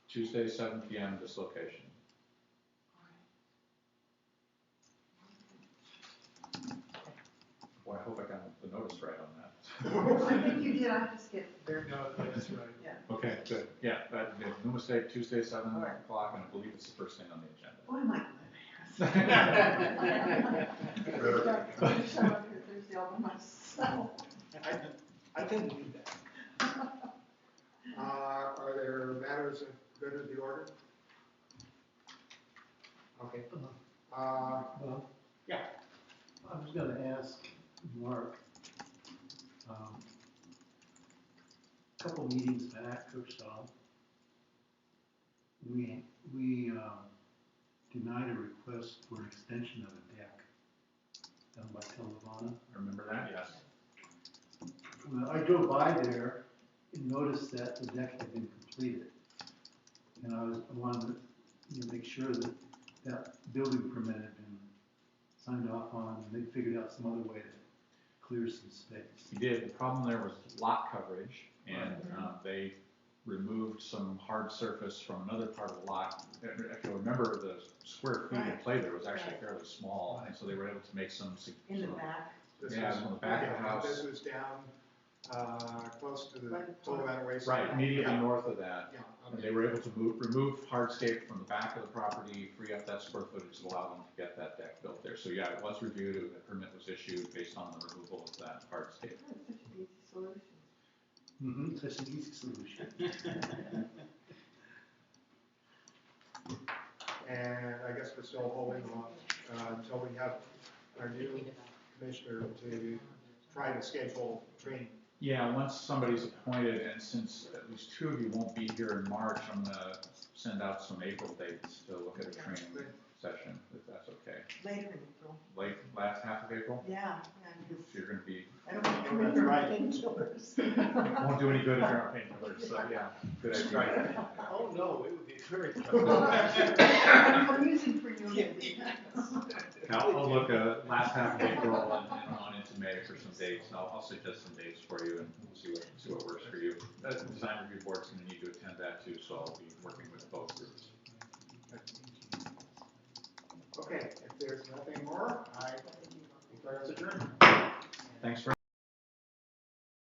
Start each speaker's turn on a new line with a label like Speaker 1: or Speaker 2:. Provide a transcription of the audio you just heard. Speaker 1: Tuesday, seven P M, this location. Boy, I hope I got the notice right on that.
Speaker 2: I think you did, I just get very,
Speaker 3: No, that's right.
Speaker 1: Okay, good, yeah, that, no mistake, Tuesday, seven
Speaker 2: All right.
Speaker 1: o'clock, and I believe it's the first thing on the agenda.
Speaker 2: what am I gonna ask?
Speaker 1: Better.
Speaker 2: I'm showing up here Thursday all by myself.
Speaker 4: I, I didn't need that.
Speaker 3: Uh, are there matters of good of the order? Okay. Uh,
Speaker 5: Well,
Speaker 4: Yeah.
Speaker 5: I was gonna ask Mark, um, a couple meetings back or so, we, we, um, denied a request for an extension of a deck down by Telvana.
Speaker 1: Remember that? Yes.
Speaker 5: Well, I drove by there and noticed that the deck had been completed. And I was, I wanted to, you know, make sure that that building permit had been signed off on, and they figured out some other way to clear some space.
Speaker 1: We did, the problem there was lot coverage, and, uh, they removed some hard surface from another part of the lot. If you remember, the square feet of
Speaker 2: Right.
Speaker 1: play there was actually fairly small, and so they were able to make some. sig-
Speaker 2: In the
Speaker 1: some-
Speaker 2: back,
Speaker 3: this
Speaker 1: Yeah,
Speaker 3: was-
Speaker 1: on the back of the
Speaker 3: yeah, This
Speaker 1: house.
Speaker 3: was down, uh, close to the
Speaker 2: Right in front.
Speaker 3: Colorado Raceway.
Speaker 1: Right, immediately
Speaker 3: Yeah,
Speaker 1: north of that,
Speaker 3: yeah,
Speaker 1: And
Speaker 3: okay.
Speaker 1: Um, They were able to move, remove hardscape from the back of the property, free up that square footage, to allow them to get that deck built there. So yeah, it was reviewed, a permit was issued based on the removal of that hardscape.
Speaker 2: that's such an easy solution.
Speaker 5: Mm-hmm. Such an easy solution.
Speaker 3: And I guess we're still holding on, uh, until we have our new commissioner to try to schedule training.
Speaker 1: Yeah, once somebody's appointed, and since at least two of you won't be here in March, I'm gonna send out some April dates to look at a training session, if that's okay.
Speaker 2: Later in April,
Speaker 1: Late, last half of April,
Speaker 2: yeah, yeah,
Speaker 1: if
Speaker 2: because
Speaker 1: you're gonna be,
Speaker 2: I don't want to
Speaker 3: That's
Speaker 2: remember
Speaker 3: right.
Speaker 2: painkillers.
Speaker 1: won't do any good if you're on painkillers, so yeah, good idea.
Speaker 4: Oh, no, it would be very.
Speaker 2: I'm using for you.
Speaker 1: I'll, I'll look, uh, last half of April and and on into May for some dates, and I'll, I'll suggest some dates for you and we'll see what, see what works for you. Uh, The design review board's gonna need to attend that too, so I'll be working with both groups.
Speaker 3: Okay, if there's nothing more, I declare us adjourned.
Speaker 1: Thanks for